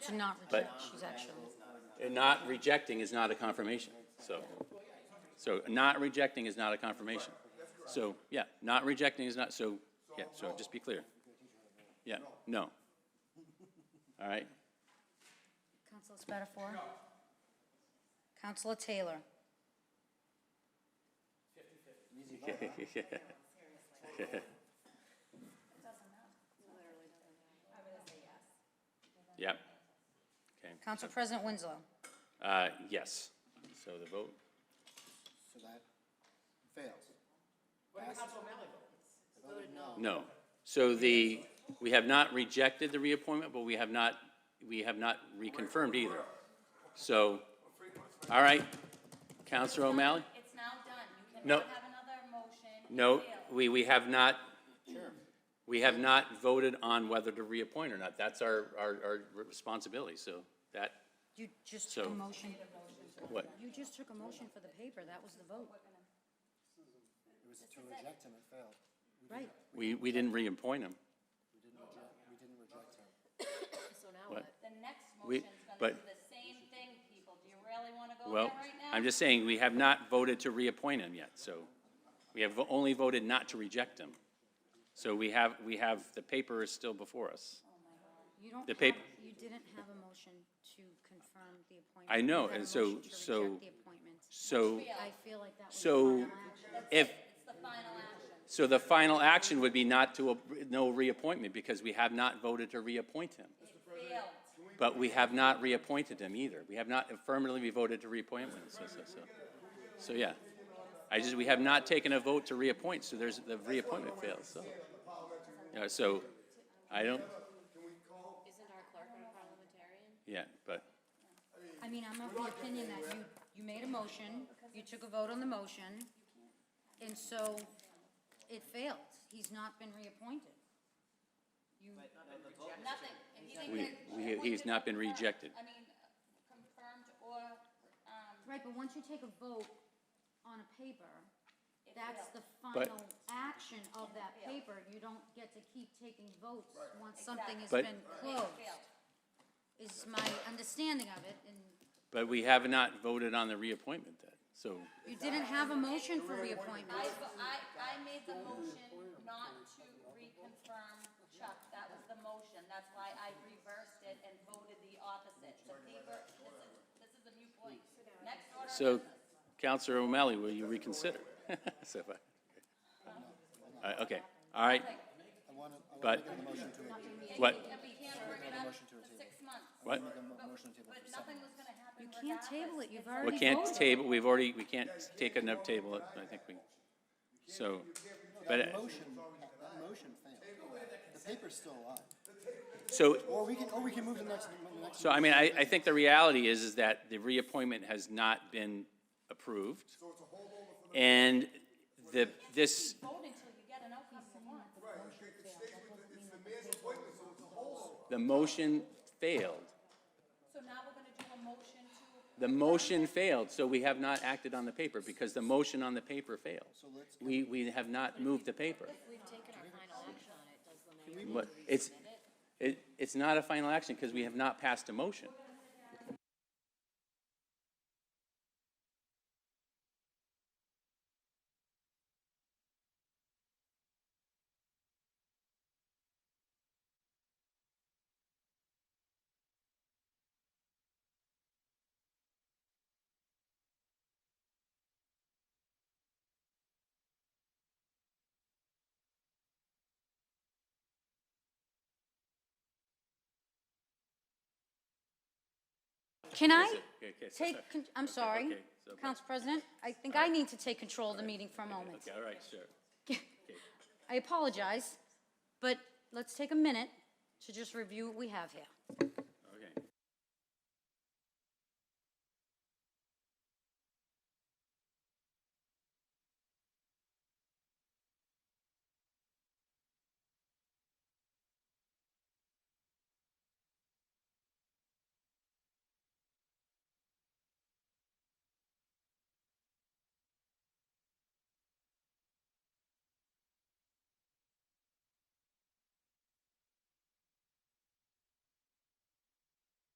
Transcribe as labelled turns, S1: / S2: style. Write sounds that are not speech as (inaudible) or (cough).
S1: to not reject, she's actually,
S2: And not rejecting is not a confirmation, so. So not rejecting is not a confirmation. So, yeah, not rejecting is not, so, yeah, so just be clear. Yeah, no. All right, (laughs)
S1: Counselor Spatafor? Counselor Taylor?
S2: (laughs) yep. Okay,
S1: Council President Winslow?
S2: uh, yes, so the vote,
S3: So that fails.
S2: no. So the, we have not rejected the reappointment, but we have not, we have not reconfirmed either. So, all right, Counselor O'Malley?
S1: It's now done, you
S2: No.
S1: another motion.
S2: No, we, we have not, we have not voted on whether to reappoint or not. That's our, our, our responsibility, so that,
S1: You just took a
S2: So-
S1: motion,
S2: what?
S1: you just took a motion for the paper, that was the vote,
S3: It was to reject him, it failed.
S1: right?
S2: We, we didn't reappoint him.
S3: We didn't reject, we didn't reject him.
S4: So now
S2: What?
S4: what?
S5: The next
S2: We-
S5: motion's gonna
S2: but-
S5: do the same thing, people. Do you really wanna go there
S2: Well,
S5: right now?
S2: I'm just saying, we have not voted to reappoint him yet, so we have only voted not to reject him. So we have, we have, the paper is still before us.
S1: You don't
S2: The
S1: have,
S2: paper-
S1: you didn't have a motion to confirm the appointment.
S2: I know,
S1: You had a
S2: and so-
S1: motion to
S2: so-
S1: reject the appointment.
S2: So,
S1: I feel like that was the
S2: so
S1: final action.
S2: if,
S5: It's the final action.
S2: so the final action would be not to, ap- no reappointment, because we have not voted to reappoint him.
S5: Failed.
S2: But we have not reappointed him either. We have not affirmatively voted to reappoint him, so, so, so. So, yeah. I just, we have not taken a vote to reappoint, so there's, the reappointment fails, so. Yeah, so, I don't,
S4: Isn't our clerk a parliamentarian?
S2: yeah, but,
S1: I mean, I'm of the opinion that you, you made a motion, you took a vote on the motion, and so it failed. He's not been reappointed. You,
S5: Oh, Nothing. And he didn't
S2: we,
S5: get
S2: we, he's not been rejected.
S5: I mean, confirmed or, um,
S1: right, but once you take a vote on a paper, that's the
S2: But-
S1: final action of that paper. You don't get to keep taking votes once something has
S2: But-
S1: been closed, is my understanding of it, and
S2: But we have not voted on the reappointment then, so,
S1: you didn't have a motion for reappointment.
S5: I, vo- I, I made the motion not to reconfirm Chuck. That was the motion. That's why I reversed it and voted the opposite. The paper, this is, this is a new point. Next order.
S2: so,
S5: of business.
S2: Counselor O'Malley, will you reconsider? (laughs) So, if I- uh, okay, all right,
S3: I want to, I want
S2: But-
S3: to make a motion to, I
S2: what,
S5: And we can't bring it up for six months,
S2: what?
S3: want to make a motion to table
S5: but
S3: for
S5: nothing
S3: seven.
S5: was gonna happen
S1: You can't
S5: regardless.
S1: table it, you've
S2: We
S1: already voted.
S2: can't table, we've already, we can't take a no table, it, I think we, so, but,
S3: The motion, that motion failed. The paper's still alive.
S2: so,
S3: Or we can, or we can move to the next, the next.
S2: so I mean, I, I think the reality is, is that the reappointment has not been approved. And the, this,
S5: Vote until you get an outcome you want.
S2: the motion failed.
S5: So now we're gonna do a motion to,
S2: The motion failed, so we have not acted on the paper, because the motion on the paper failed. We, we have not moved the paper.
S4: We've taken our final action on it, does the mayor?
S2: But it's, it, it's not a final action, because we have not passed a motion.
S1: Can I
S2: Okay, okay, so-
S1: take, con- I'm sorry,
S2: okay, so-
S1: Council President, I think I need to take control of the meeting for a moment.
S2: Okay, all right, sure.
S1: I apologize, but let's take a minute to just review what we have here.